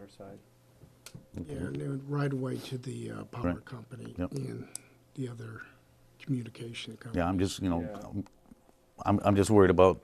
our side. Yeah, and then right away to the uh, power Correct. company Yep. and the other communication company. Yeah, I'm just, you know, Yeah. I'm- I'm, I'm just worried about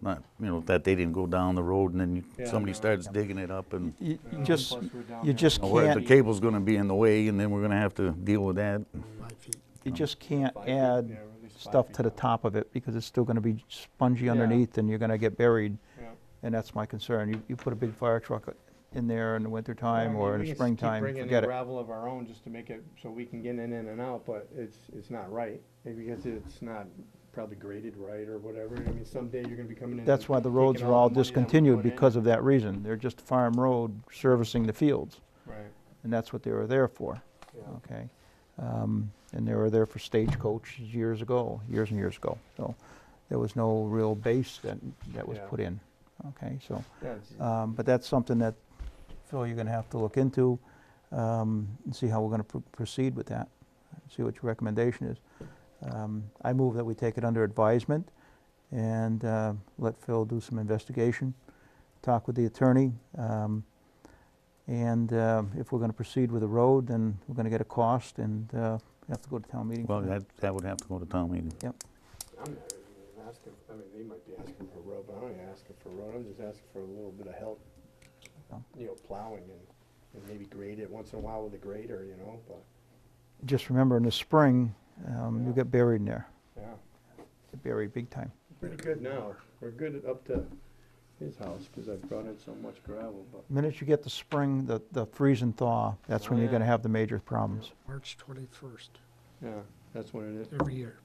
not, you know, that they didn't go down the road and then you- Yeah, somebody no. starts digging it up and You you Yeah, just, plus we're down you there just by you know, where the can't, feet. cable's gonna be in the way and then we're gonna have to deal with that. Five feet. you just can't Five feet, yeah, add or at least five stuff feet to the down. top of it because it's still gonna be spongy Yeah. underneath and you're gonna get buried. Yeah. And that's my concern. You, you put a big fire truck in there in the I wintertime mean, or we in can the s- springtime, Keep bringing forget in it. gravel of our own just to make it so we can get in and out, but it's, it's not right. Maybe Because it's not probably graded right or whatever. I mean, someday you're gonna be coming in. That's why the roads are all discontinued because of that reason. They're just farm road servicing the fields. Right, And that's what they were there for, yeah. okay? Um, And they were there for stagecoach years ago, years and years ago. So there was no real base that, that was Yeah. put in, okay? So Yeah, it's- Um, But that's something that, Phil, you're going to have to look into um, and see how we're going to proceed with that, see what your recommendation is. Um, I move that we take it under advisement and uh, let Phil do some investigation, talk with the attorney. um, And uh, if we're going to proceed with the road, then we're going to get a cost and uh, we have to go to town meeting. for Well, that. that, that would have to go to town meeting. I'm not even asking, I mean, they might be asking for a road, but I'm not even asking for a road, I'm just asking for a little bit of help. Oh. You know, plowing and, and maybe grade it once in a while with a grader, you know, but, Just remember, in the spring, um, you Yeah. get buried in there, yeah. get buried big time. Pretty good now, we're good at- up to his house, cause I've brought in so much gravel, but. Minute you get the spring, the, the freeze and thaw, that's Oh, when you're yeah. gonna have the major problems. March 21st, Yeah, that's what it is. every year.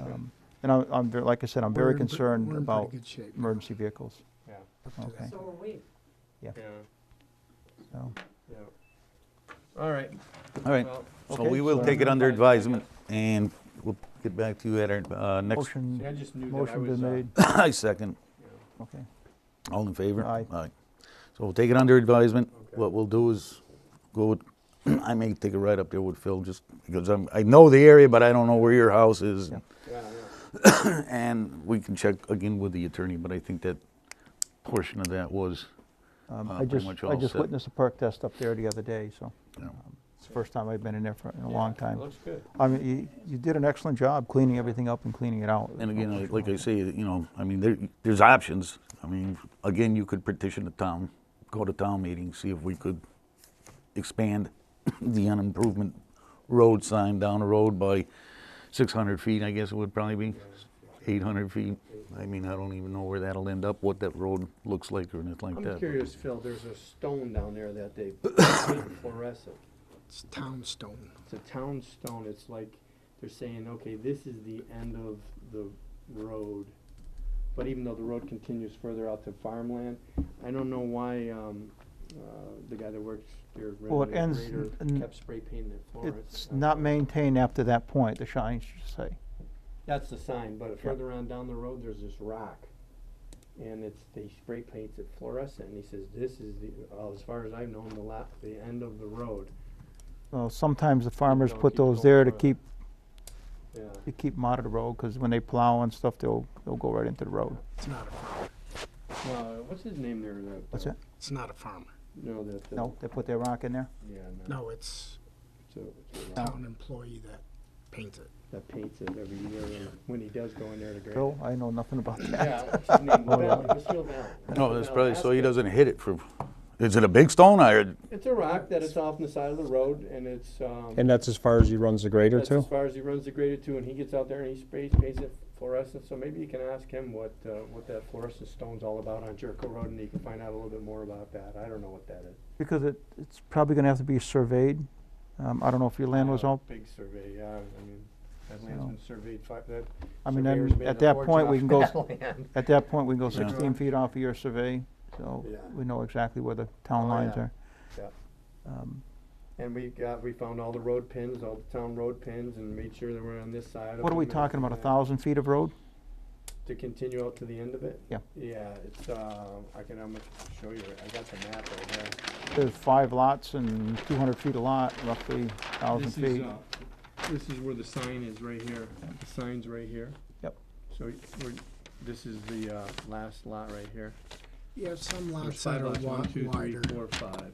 Um, And I'm, I'm, ver- like I said, I'm We're very in pre- concerned we're in pretty about good shape now, emergency vehicles, Yeah, up to okay. that. So are we. yeah, so. yeah. All right, All right, well, uh, so Okay, we will so- take it under advisement and we'll get back to you at our uh, next, see, I Motion, just knew that I motion was, been uh, made, I second. you know, okay. All in favor? Aye. So we'll take it under advisement. Okay. What we'll do is go, with- I may take a ride up there with Phil just because I'm, I know the area, but I don't know where your house is. Yeah. Yeah, yeah, And we can check again with the attorney, but I think that portion of that was, Um, Uh, I pretty just, much I all just set. witnessed a perk test up there the other day, so um, you know, it's the first time I've been in there for, in a Yeah, long it time. Looks good. I mean, you, you did an excellent job cleaning everything up and cleaning it out. and There's no again, I- question like I about say, you know, I mean, there, there's options. I mean, again, you could petition the town, go to town meeting, see if we could expand the unimprovement road sign down the road by 600 feet, I guess it would probably be, 800 feet. I mean, I don't even know where that'll end up, what that road looks like or anything like I'm that. curious, Phil, there's a stone down there that they fluorescent. It's town stone. It's a town stone, it's like, they're saying, okay, this is the end of the road. But even though the road continues further out to farmland, I don't know why, um, uh, the guy that works there, Well, it ends Renner n- kept spray painting it Uh, it. Florence. It's not maintained after that point, the signs should say. That's the sign, but further on down the road, there's this rock. And it's, they spray paints it fluorescent, and he says, this is the, oh, as far as I've known, the la- the end of the road, Well, sometimes the farmers going, put keep those going there to further. keep yeah. you keep 'em out of the road, because when they plow and stuff, they'll, they'll go right into the road. It's not a farmer. Well, Uh, what's his name there, that? What's uh, that? It's not a farmer. No, that. uh, No, they put their rock in there? Yeah, no. No, it's So, it's a rock town employee that paints it. that paints it every year, and when he does go in there to grade. Phil, I know nothing about that. Yeah, what's his name, Val- Lucille Val- No, Lucille that's Val probably, so he Askew. doesn't hit it for, is it a big stone or, It's a rock that is off on the side of the road, and it's, um. And that's as far as he runs the grader That's too? as far as he runs the grader too, and he gets out there and he sprays, paints it fluorescent, so maybe you can ask him what, uh, what that fluorescent stone's all about on Jericho Road, and you can find out a little bit more about that, I don't know what that is. Because it, it's probably gonna have to be surveyed. Um, I don't know if your land was Yeah, all, Uh, Big survey, yeah, I mean, that land's So- been surveyed five, that. I mean, surveyor's then made at a that fortune point, we off can go, that s- land. at that point, we can go Yeah. sixteen feet off of your survey, so Yeah. we know exactly where the town Oh, lines yeah. are. Yep. Um, And we got, we found all the road pins, all the town road pins, and made sure they were on this side of What are we them and talking about, a everything. thousand feet of road? To continue out to the end of it? Yeah. Yeah, it's, uh, I can, I'm gonna show you, I got the map right here. There's five lots and two hundred feet a lot, roughly thousand This is, feet. uh, This is where the sign is, right here. The sign's right here. Yep. So we're, this is the uh, last lot right here. Yeah, some There's lots five that are lots, wi- one, two, three, wider. four, five.